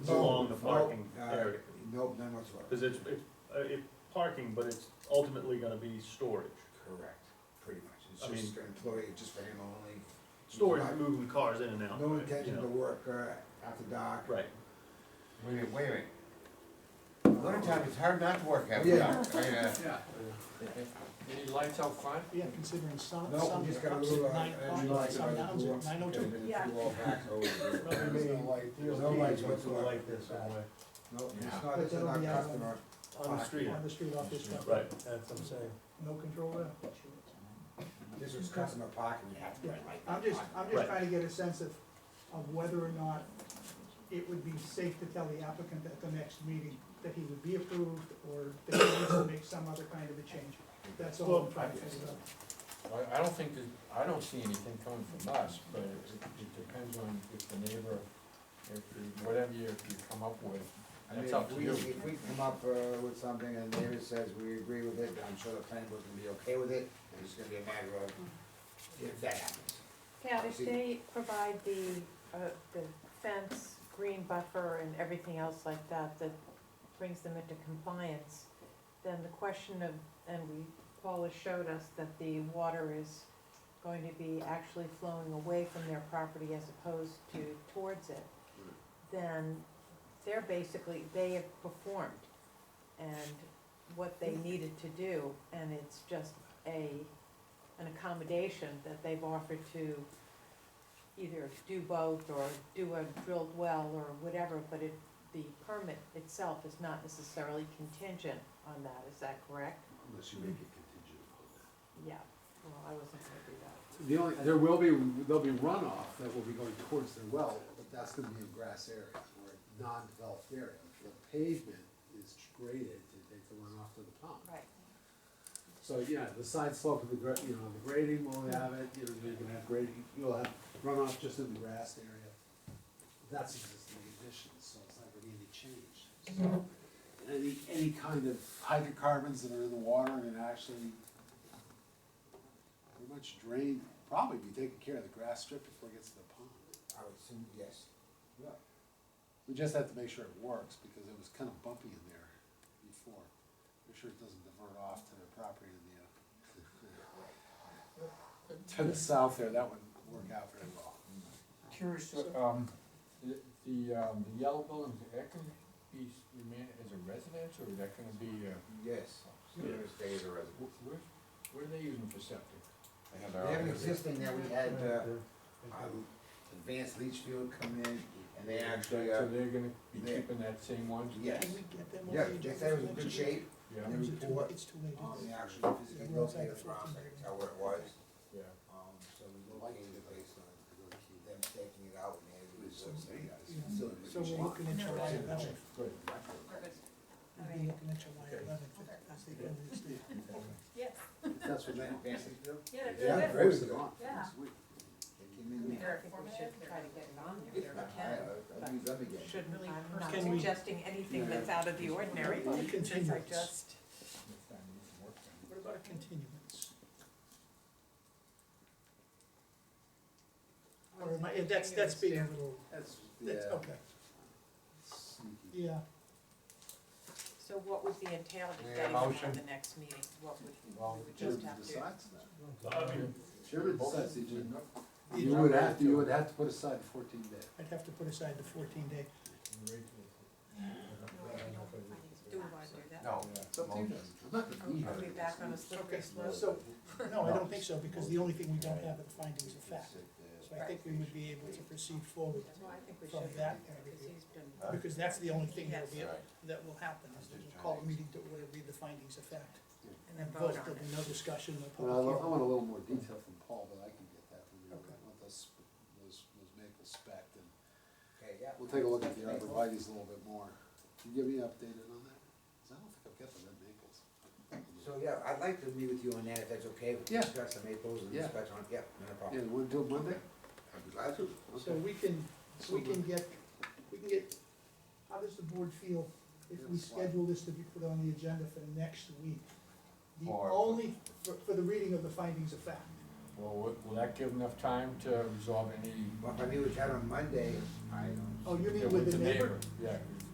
the No, parking uh, area. Nope, none whatsoever. Cause it's, it's, uh, it, parking, but it's ultimately gonna be storage. Correct, pretty much. It's I mean- just employee, just for him only. Storage, Not- moving cars in and out. No right, you intention to know. work uh, after dark. Right, Wait a minute, wait a minute. Wintertime, it's hard not to work out. Yeah. Yeah. Any lights out front? Yeah, considering some, No, some we just are got a ups little. uh, at nine o'clock, some downs at nine oh two. Yeah. two. There's no lights whatsoever. Like this, No, it's Yeah. not, it's But not that'll be out on- customer. on the street, On the street off this stuff. right. That's what I'm saying. No control there. This is customer parking, you have to Yeah, put light. I'm just, I'm Right. just trying to get a sense of, of whether or not it would be safe to tell the applicant at the next meeting that he would be approved or that he needs to make some other kind of a change. That's all I'm trying to figure out. Well, I don't think that, I don't see anything coming from us, but it, it depends on if the neighbor, if, you- whatever you, you come up with, I mean, that's up if to we, you. if we come up uh, with something and David says we agree with it, I'm sure the planning board's gonna be okay with it, and it's gonna be a matter of if that happens. Now, if they provide the, uh, the fence, green buffer and everything else like that, that brings them into compliance, then the question of, and we, Paula showed us that the water is going to be actually flowing away from their property as opposed to towards it, then they're basically, they have performed and what they needed to do, and it's just a, an accommodation that they've offered to either do both or do a drilled well or whatever, but it, the permit itself is not necessarily contingent on that, is that correct? Unless you make it contingent upon that. Yeah, well, I wasn't gonna do that. The only, there will be, there'll be runoff that will be going towards the well, but that's gonna be in grass areas or non-developed area. The pavement is graded to take the runoff to the pond. Right. So, yeah, the side slope of the, gra- you know, the grading will have it, you know, you're gonna have grading, you'll have runoff just in the grass area. That's existing conditions, so it's not gonna be any change. So, Any, any kind of hydrocarbons that are in the water and actually pretty much drain, probably be taking care of the grass strip before it gets to the pond. I would assume, yes. We just have to make sure it works, because it was kind of bumpy in there before. Make sure it doesn't divert off to the property in the, uh, to the south there, that wouldn't work out very well. Curious, uh, um, the, the, um, the yellow building, is that gonna be, s- remain as a residence, or is that gonna be, uh, Yes. Yeah. Stay as a resident. wh- where, what are they using for septic? I know They have an they're out there. existing that we had, uh, um, Advanced Leachfield come in, and they actually, uh, So they're gonna be they- keeping that same one? yes. Can we get them on Yeah, the they agenda said it was in for good next shape, and Yeah, Or is they it too- report, It's too late. um, isn't they it? actually physically Yeah, we're outside located the the grounds, I fourteen. can tell where it was. yeah. Um, so we located it based on them taking it out, and it was, uh, Yeah. still in good So we're shape. looking at July It's in good eleventh. shape. Good. We'll be looking at July eleventh, that's the end of this day. Yes, That's what Was they, that Advanced Leachfield? yeah, Yeah, they're good. very good. Yeah. They came in. They're I think we informative, should they're try to get it on Yeah, there if we I, can. I, I use them again. Shouldn't, Really I'm not personal. suggesting anything that's out of the ordinary, What about a since I continuance? just, Next time you can work on it. What about a continuance? Or am I, that's, that's being a little, That's, that's, yeah. okay, sneaky. yeah. so what would be entailed Need a if they were motion? at the next meeting? What would, Well, we would just Chairman have to? decides that. I mean, Chairman decides, the agenda. you not would ready have, to- you would have to put aside the fourteen day. I'd have to put aside the fourteen day. Do we wanna do that? No. It's up to you guys. I'm not gonna be Are we here. back on a slippery slope? So, no, I don't think so, because the only thing we don't have are the findings of fact. So I think we would be able to proceed forward, Well, I think we From should, that point of because view. he's been, because that's the only thing that'll be, Yes. Right. that will happen, is that we'll call a meeting to order, read the findings of fact. and then Vote, vote on there'll be it. no discussion, no Well, I public want- I hearing. want a little more detail from Paul, but I can get that from you. I Okay. want those, those, those maples spec and Okay, yeah. We'll take a look at the arborvitae's a little bit more. Can you give me an update on that? Cause I don't think I've got the red maples. So, yeah, I'd like to meet with you on that, if that's okay, we can Yeah. discuss the maples and Yeah. discuss on, yeah, no problem. Yeah, we'll do it Monday? I'd be glad to. So we can, we can get, we can get, how does the board feel if we schedule this to be put on the agenda for next week? The For- only, for, for the reading of the findings of fact. Well, will, will that give enough time to resolve any? Well, if I meet with Chad on Monday, I don't. Oh, you mean Yeah, with the neighbor? Yeah,